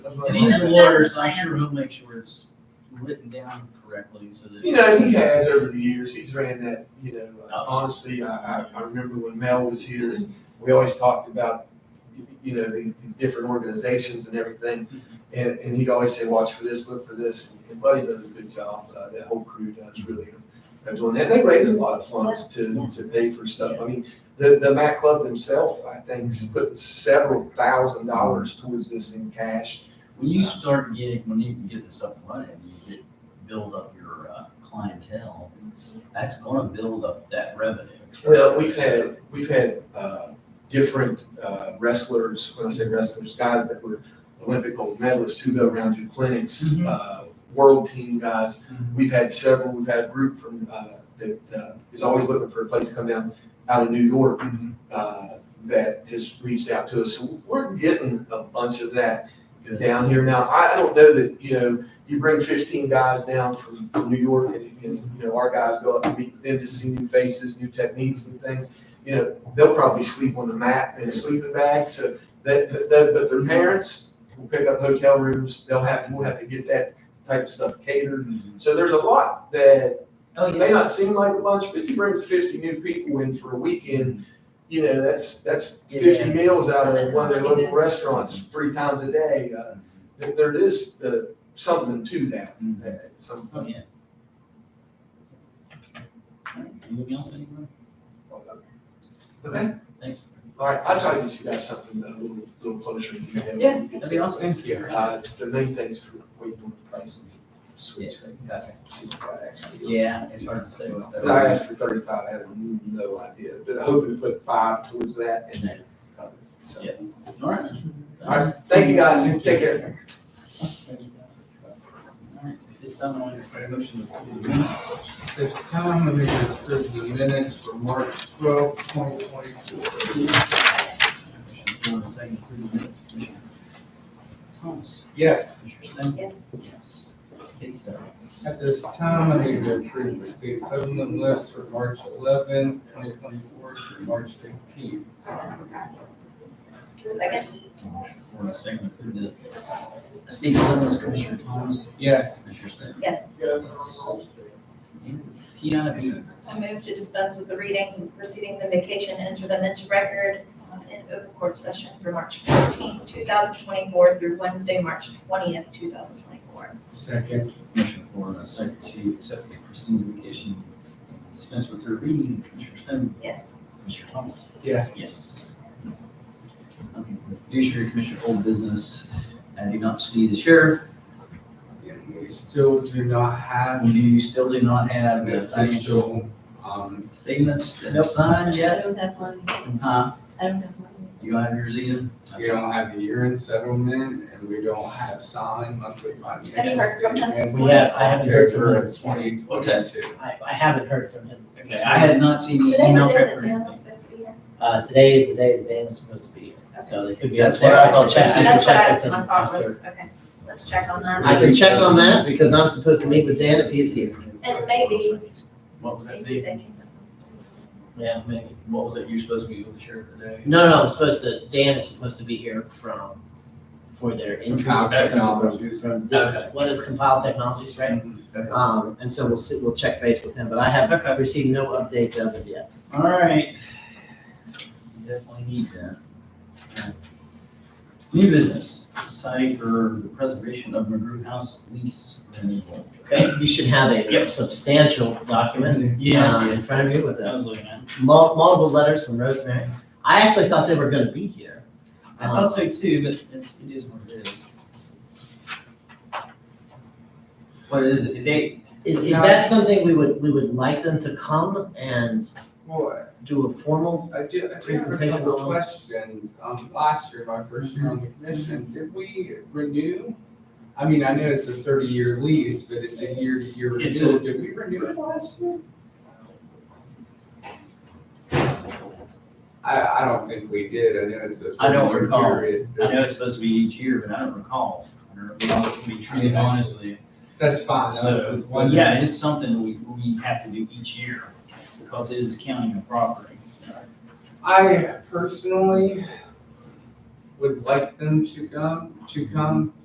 And He's he's a a lawyer, so I'm business sure he'll make sure it's written down correctly so that. You know, he has over the years, he's ran that, you know, Oh. honestly, I, I, I remember when Mel was here, and we always talked about, you know, the- these different organizations and everything. And, and he'd always say, watch for this, look for this, and Buddy does a good job, uh, that whole crew does really of doing that. They raise a lot of funds to, to pay for stuff. I mean, the, the Mac Club themselves, I think, put several thousand dollars towards this in cash. When you start getting, when you can get this up and running, you get, build up your uh, clientele, that's gonna build up that revenue. Well, we've had, we've had, uh, different, uh, wrestlers, when I say wrestlers, guys that were Olympic gold medalists who go around to clinics, Mhm. uh, world team guys. Mhm. We've had several, we've had a group from, uh, that, uh, is always looking for a place to come down out of New York. Mhm. uh, that has reached out to us. So we're getting a bunch of that Good. down here now. I I don't know that, you know, you bring fifteen guys down from from New York and, and, you know, our guys go up and meet with them to see new faces, new techniques and things. You know, they'll probably sleep on the mat in a sleeping bag, so that, that, that- but their parents will pick up hotel rooms. They'll have, we'll have to get that type of stuff catered. Mhm. So there's a lot that Oh, it may yeah. not seem like a bunch, but you bring fifty new people in for a weekend, you know, that's, that's fifty Yeah. meals out of Something one of their like local this. restaurants, three times a day. Uh, th- There is, uh, something to that, Mhm. uh, some, Oh, yeah. All right, Anything else, anyone? okay? Thanks. All right, I'll try to get you guys something a little, little closer. to you. Yeah, that'd be awesome. Thank you. Uh, the main thing's for waiting on the price and switch. Gotcha. See what that actually is. Yeah, it's hard to say what. that- I asked for thirty-five, I have no idea, but I'm hoping to put five towards that and then, uh, so. Yeah. All right. All right, thank you guys, take care. All right, This time I'm going to motion to approve the minutes. This time, let me just give the minutes for March twelfth, twenty twenty-four. Motion for the second approve the minutes, Commissioner Thomas, Yes, Commissioner Stan? Yes. Yes. Eight seconds. at this time, I need to approve the state settlement list for March eleventh, twenty twenty-four through March fifteenth. Second? Motion For the second approve the estate settlements, Commissioner Thomas, Yes, Commissioner Stan? Yes. Yes. And Piana Beavers. I move to dispense with the readings and proceedings and vacation and enter them into record uh, in open court session for March 15, 2024 through Wednesday, March 20th, 2024. second, Motion for the second to accept the proceedings invocation, dispense with their reading, Commissioner Stan, Yes. Commissioner Thomas? yes, Yes. Judiciary Commission old business, I do not see the sheriff, and we still do not have and you still do not have an the financial official, um, statements that have signed I yet. don't have one. Huh? I don't have one. You don't have yours either? we don't have a year-end settlement, and we don't have signed monthly financial Have you heard from them? statements. We have- I haven't heard from them. Twenty twenty-two. What's that? I, I haven't heard from him. Okay, I had not Today seen we the did email that track or Dan was anything. supposed to be here. Uh, today is the day that Dan is supposed to be here, so they could be. That's out there. what I I'll thought. check- I can That's what I check I with him thought was, after. okay, let's check on that. I can check on that because I'm supposed to meet with Dan if he is here. And maybe- What was that, Maybe Dave? they can- Yeah, maybe. What was that, you're supposed to be with the sheriff today? No, no, I'm supposed to, Dan is supposed to be here from, for their intro. Compile technologies. The- What is compiled technologies, right? Um, and so we'll see, we'll check base with him, but I Okay. have received no updates as of yet. All right. You Definitely need that. Alright. New business, Society for the Preservation of McGrew House Lease Renewal. Okay, you should have a Yep. substantial document uh, Yeah, in front of you with I a was looking at. it. mul- multiple letters from Rosemary. I actually thought they were gonna be here. I thought so too, but it's, it is what it is. What is it, they, Is, is No. that something we would, we would like them to come and Well, do a formal? I do, I do have a Presentation couple of on- questions. Um, last year, my first year on the commission, did we renew? I mean, I know it's a thirty-year lease, but it's a year-to-year It's renewal. Did we renew it last year? I, I don't think we did. I know it's a I don't thirty-year recall. period. I know it's supposed to be each year, but I don't recall. Or we all can be treated honestly. That's fine. That was just So, one- yeah, it's something we, we have to do each year because it is counting and property. I personally would like them to come, to come